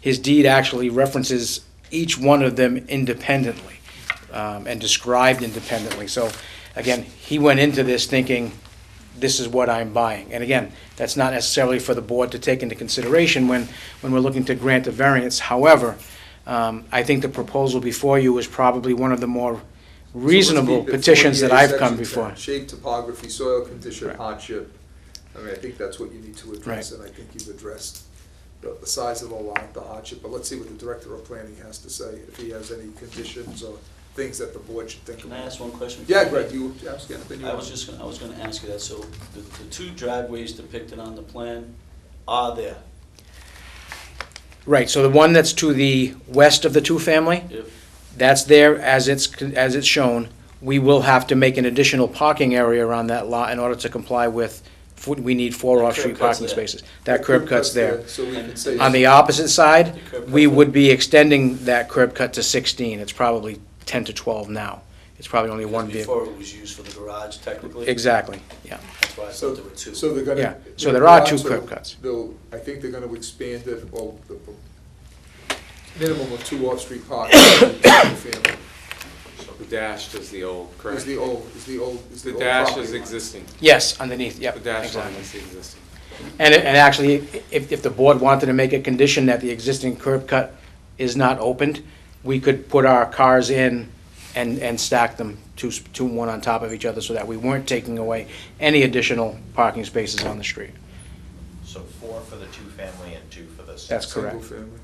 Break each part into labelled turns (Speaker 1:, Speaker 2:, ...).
Speaker 1: his deed actually references each one of them independently um, and described independently. So again, he went into this thinking, this is what I'm buying. And again, that's not necessarily for the board to take into consideration when, when we're looking to grant a variance. However, um, I think the proposal before you is probably one of the more reasonable petitions that I've come before.
Speaker 2: Shape, topography, soil condition,
Speaker 1: Right.
Speaker 2: hardship. I mean, I think that's what you need to address, and I think you've addressed the, the size of the lot, the hardship, but let's see what the director of planning has to say, if he has any conditions or things that the board should think
Speaker 3: Can I
Speaker 2: about.
Speaker 3: ask one question?
Speaker 2: Yeah, Greg, you, I was gonna, then you.
Speaker 3: I was just, gonna- I was gonna ask you that, so the, the two driveways depicted on the plan are there,
Speaker 1: Right, so the one that's to the west of the two-family,
Speaker 3: if,
Speaker 1: that's there as it's, as it's shown. We will have to make an additional parking area around that lot in order to comply with, we need four
Speaker 3: That curb
Speaker 1: off-street
Speaker 3: cut's
Speaker 1: parking
Speaker 3: there.
Speaker 1: spaces. That curb cut's there.
Speaker 2: So we can say.
Speaker 1: On the opposite side,
Speaker 3: The curb
Speaker 1: we
Speaker 3: cut's
Speaker 1: would be extending that curb cut to 16. It's probably 10 to 12 now. It's probably only one vehicle.
Speaker 3: before it was used for the garage technically?
Speaker 1: Exactly, yeah.
Speaker 3: That's why I
Speaker 2: So,
Speaker 3: thought there were two.
Speaker 2: so they're gonna.
Speaker 1: Yeah, so there are
Speaker 2: they're
Speaker 1: two
Speaker 2: also-
Speaker 1: curb cuts.
Speaker 2: They'll, I think they're gonna expand it, or the, minimum of two off-street parking, family,
Speaker 4: The dash is the old,
Speaker 2: is
Speaker 4: correct?
Speaker 2: the old, is the old, is the
Speaker 4: The
Speaker 2: old
Speaker 4: dash
Speaker 2: property
Speaker 4: is
Speaker 2: line.
Speaker 4: existing.
Speaker 1: Yes, underneath, yep.
Speaker 4: The dash line
Speaker 1: exactly.
Speaker 4: is the existing.
Speaker 1: And, and actually, if, if the board wanted to make a condition that the existing curb cut is not opened, we could put our cars in and, and stack them two, s- two, one on top of each other so that we weren't taking away any additional parking spaces on the street.
Speaker 5: So four for the two-family and two for the single.
Speaker 1: That's correct.
Speaker 2: Single family.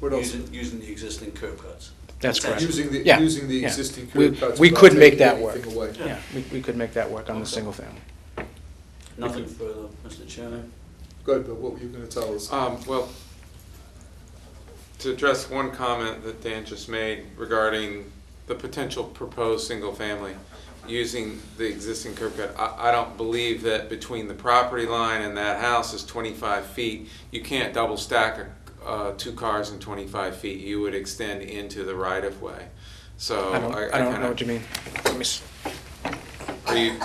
Speaker 2: What else?
Speaker 3: Using, using the existing curb cuts.
Speaker 1: That's correct.
Speaker 2: Using the,
Speaker 1: Yeah,
Speaker 2: using the
Speaker 1: yeah.
Speaker 2: existing
Speaker 1: We-
Speaker 2: curb cuts.
Speaker 1: we
Speaker 2: without
Speaker 1: could make
Speaker 2: taking
Speaker 1: that work.
Speaker 2: anything away.
Speaker 1: Yeah, we, we could make that work on the single family.
Speaker 3: Nothing further, Mr. Chairman?
Speaker 2: Good, but what were you gonna tell us?
Speaker 4: Um, well, to address one comment that Dan just made regarding the potential proposed single-family using the existing curb cut, I, I don't believe that between the property line and that house is twenty-five feet. You can't double stack, uh, two cars in twenty-five feet. You would extend into the right-of-way. So
Speaker 1: I don't,
Speaker 4: Oh, I, I
Speaker 1: I don't know what you
Speaker 4: kinda,
Speaker 1: mean. Let me s-
Speaker 4: are you,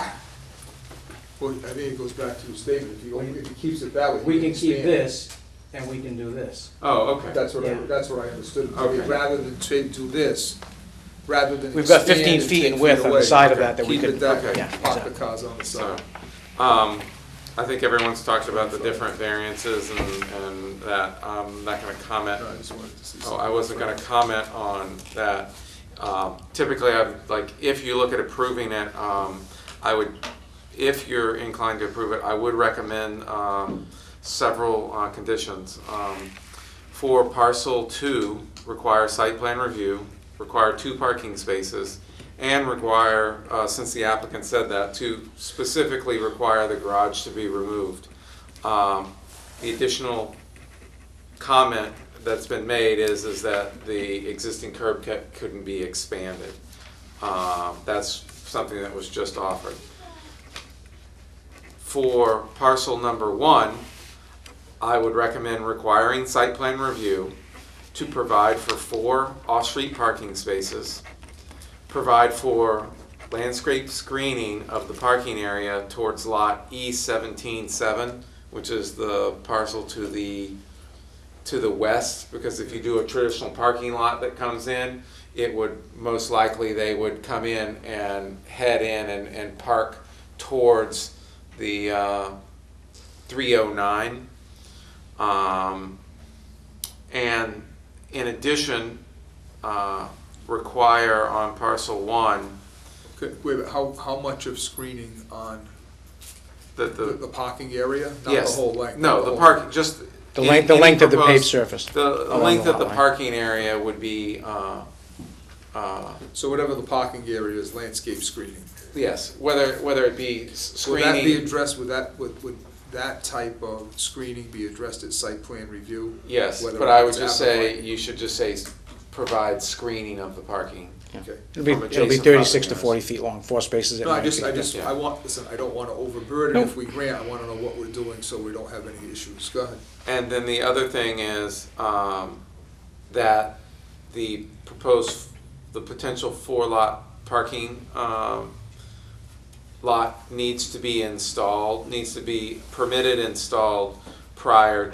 Speaker 2: Well, I think it goes back to the statement, if he, only- if he keeps it that way.
Speaker 1: We
Speaker 2: he
Speaker 1: can keep
Speaker 2: expand it.
Speaker 1: this, and we can do this.
Speaker 4: oh, okay.
Speaker 2: That's what I,
Speaker 1: Yeah.
Speaker 2: that's what I understood, I mean,
Speaker 4: Okay.
Speaker 2: rather than to do this, rather than.
Speaker 1: We've got
Speaker 2: expand
Speaker 1: 15
Speaker 2: and
Speaker 1: feet
Speaker 2: 10
Speaker 1: in width on the
Speaker 2: away,
Speaker 1: side of that that we
Speaker 2: keep it
Speaker 1: could-
Speaker 2: that way,
Speaker 1: yeah,
Speaker 2: Park the
Speaker 1: exactly.
Speaker 2: cars on the
Speaker 4: So,
Speaker 2: side.
Speaker 4: um, I think everyone's talked about the different variances and, and that, I'm not gonna comment.
Speaker 2: No, I just wanted to see
Speaker 4: Oh,
Speaker 2: something.
Speaker 4: I wasn't gonna comment on that. Um, typically, I, would like, if you look at approving it, um, I would, if you're inclined to approve it, I would recommend, um, several, uh, conditions. Um, For parcel two, require site plan review, require two parking spaces, and require, uh, since the applicant said that, to specifically require the garage to be removed. Um, The additional comment that's been made is, is that the existing curb cut couldn't be expanded. Um, That's something that was just offered. For parcel number one, I would recommend requiring site plan review to provide for four off-street parking spaces, provide for landscape screening of the parking area towards lot E seventeen seven, which is the parcel to the to the west, because if you do a traditional parking lot that comes in, it would, most likely, they would come in and head in and, and park towards the, uh, three oh nine. Um, and in addition, uh, require on parcel one
Speaker 2: Okay, Wait, a minute, how, how much of screening on
Speaker 4: that
Speaker 2: the, the
Speaker 4: the,
Speaker 2: parking area? Not the
Speaker 4: yes.
Speaker 2: whole length? not
Speaker 4: No, the
Speaker 2: whole-
Speaker 4: park, just.
Speaker 1: The length- the
Speaker 4: any
Speaker 1: length of the paved
Speaker 4: proposed-
Speaker 1: surface
Speaker 4: The, the
Speaker 1: along
Speaker 4: length
Speaker 1: the
Speaker 4: of the
Speaker 1: lot line.
Speaker 4: parking area would be, uh, uh,
Speaker 2: So whatever the parking area is, landscape screening.
Speaker 4: Yes, whether, whether it be s-
Speaker 2: Would that be
Speaker 4: screening,
Speaker 2: addressed, would that, would, would that type of screening be addressed at site plan review?
Speaker 4: yes,
Speaker 2: Whether
Speaker 4: but I would
Speaker 2: it's
Speaker 4: just
Speaker 2: applicable?
Speaker 4: say, you should just say, s- provide screening of the parking.
Speaker 2: Okay.
Speaker 1: It'll be,
Speaker 4: From
Speaker 1: it'll be
Speaker 4: adjacent
Speaker 1: 36 to
Speaker 4: property owners.
Speaker 1: 40 feet long, four spaces at
Speaker 2: No, I
Speaker 1: 90
Speaker 2: just, I
Speaker 1: feet.
Speaker 2: just,
Speaker 4: Yeah.
Speaker 2: I want, listen, I don't wanna overburden,
Speaker 1: No.
Speaker 2: if we grant, I wanna know what we're doing, so we don't have any issues, go ahead.
Speaker 4: And then the other thing is, um, that the proposed, the potential four lot parking, um, lot needs to be installed, needs to be permitted installed prior